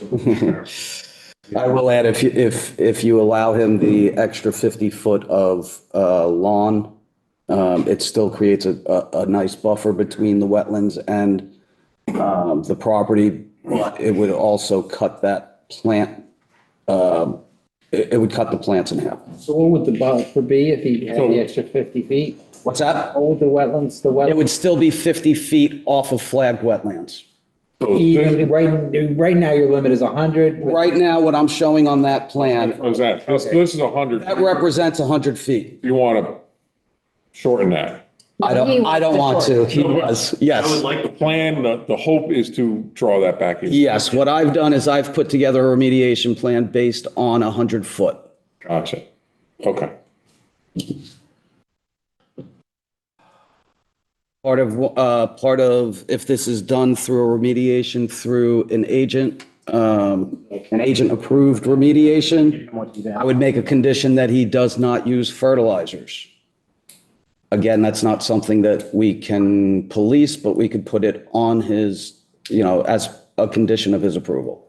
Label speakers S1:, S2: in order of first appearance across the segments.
S1: person.
S2: I will add, if, you- if, if you allow him the extra 50 foot of uh, lawn, um, it still creates a, a, a nice buffer between the wetlands and um, the property. But it would also cut that plant, um, it, it would cut the plants in half.
S3: So what would the buffer be if he had the extra fifty feet?
S2: What's that?
S3: What would the wetlands, the
S2: It
S3: wetlands,
S2: would still be 50 feet off of flagged wetlands.
S1: So this-
S3: even, right, right now your limit is hundred.
S2: Right now, what I'm showing on that plan,
S1: What is that? This, this is a hundred.
S2: that represents 100 feet.
S1: You want to shorten that.
S2: I
S4: He
S2: don't,
S4: wants
S2: I don't
S4: the
S2: want
S4: short.
S2: to. He was, yes.
S1: I would like the plan, the, the hope is to draw that back in.
S2: Yes, what I've done is I've put together a remediation plan based on a hundred foot.
S1: Gotcha. Okay.
S2: Part of, uh, part of, if this is done through a remediation through an agent, um, an agent approved remediation, I would make a condition that he does not use fertilizers. Again, that's not something that we can police, but we could put it on his, you know, as a condition of his approval.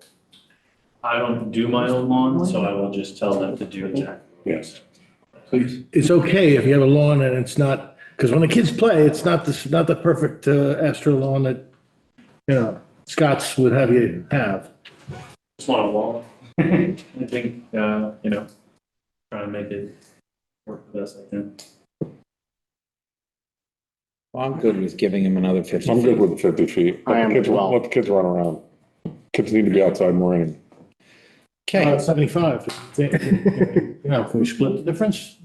S5: I don't do my own lawn, so I will just tell them to do exactly.
S1: Yes.
S6: It's okay if you have a lawn and it's not, because when the kids play, it's not the, not the perfect uh, Astro lawn that, you know, Scots would have you have.
S5: Just want a lawn. I think, uh, you know, try to make it work the best I can.
S7: I'm good with giving him another 50
S1: I'm good
S7: feet.
S1: with the fifty feet. Let the
S7: I am
S1: kids-
S7: as well.
S1: Let the kids run around. Kids need to be outside more. and-
S6: Uh,
S7: Okay,
S6: 75. You know, can we split the difference?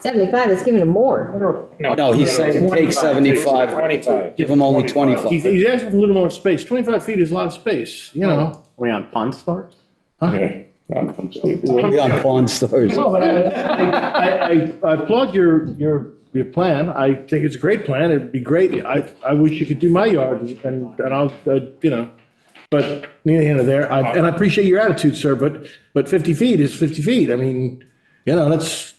S4: 75 is giving him more.
S2: No, he's saying take seventy-five,
S7: 25.
S2: give him only
S6: He's,
S2: twenty-five.
S6: he's asking for a little more space. 25 feet is a lot of space, you know?
S7: We on Pond Store?
S1: Yeah.
S2: We'll be on Pawn Stars.
S5: Oh.
S6: No, but I- I, I applaud your, your, your plan. I think it's a great plan. It'd be great. I, I wish you could do my yard and, and I'll, uh, you know. But neither here nor there. I- And I appreciate your attitude, sir, but, but 50 feet is 50 feet. I mean, you know, that's,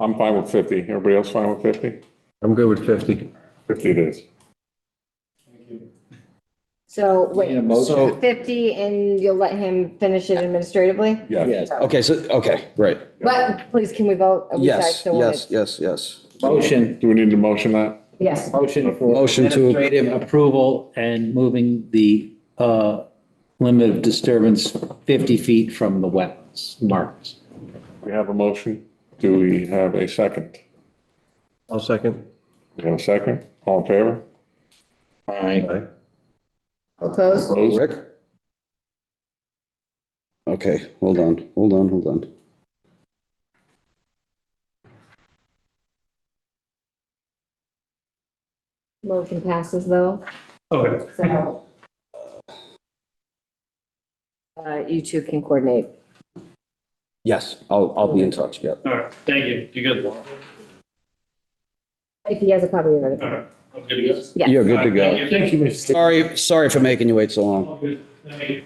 S1: I'm fine with fifty. Everybody else fine with fifty?
S8: I'm good with 50.
S1: Fifty it is.
S4: So
S3: Need a
S4: wait,
S3: motion?
S2: So,
S4: 50 and you'll let him finish it administratively?
S1: Yeah.
S2: okay, so, okay, right.
S4: But please, can we vote? Are we
S2: Yes,
S4: tied to one?
S2: yes, yes, yes.
S3: Motion,
S1: Do we need to motion that?
S4: Yes.
S3: motion for.
S2: Motion to-
S3: Administrative
S9: approval and moving the uh, limit of disturbance 50 feet from the wetlands marks.
S1: We have a motion. Do we have a second?
S8: I'll second.
S1: We have a second? All in favor?
S7: All right.
S4: Close?
S1: Opposed?
S2: Rick? Okay, hold on, hold on, hold on.
S4: Motion passes though,
S5: Okay.
S4: so. Uh, you two can coordinate.
S2: Yes, I'll, I'll be in touch, yeah.
S5: All right, thank you. You good? All
S4: If he has a copy of it.
S5: right, I'm good to go.
S4: Yeah.
S2: You're good to
S5: All
S2: go.
S5: right, Thank you.
S2: Sorry, sorry for making you wait so long.
S5: All good. Thank you.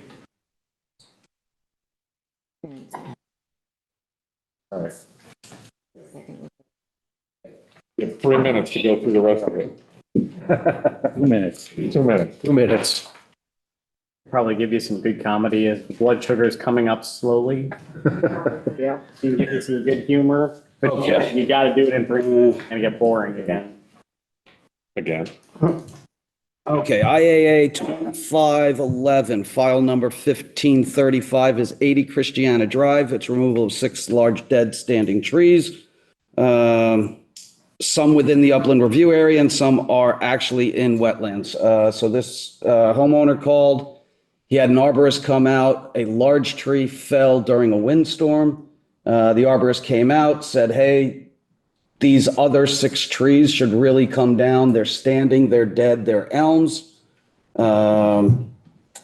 S1: We have three minutes to go through the rest of it.
S7: Two minutes.
S1: Two minutes.
S8: Two minutes.
S7: Probably give you some good comedy. as the Blood sugar is coming up slowly.
S4: Yeah.
S7: You can give you some good humor. But yeah, you got to do it in three minutes. It's going to get boring again.
S1: Again.
S2: Okay, IAA 2511, file number 1535 is 80 Christiana Drive. It's removal of six large dead standing trees. um, Some within the upland review area and some are actually in wetlands. Uh, So this uh, homeowner called. He had an arborist come out. A large tree fell during a windstorm. Uh, The arborist came out, said, hey, these other six trees should really come down. They're standing, they're dead, they're elms. Um,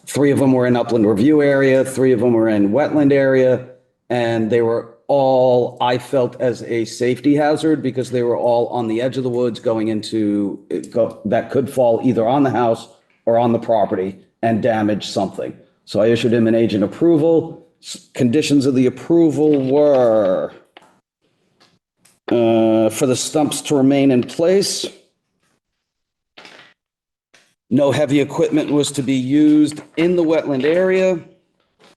S2: three of them were in upland review area, three of them were in wetland area, and they were all, I felt, as a safety hazard because they were all on the edge of the woods going into, it go- that could fall either on the house or on the property and damage something. So I issued him an agent approval. S- Conditions of the approval were uh, for the stumps to remain in place. No heavy equipment was to be used in the wetland area.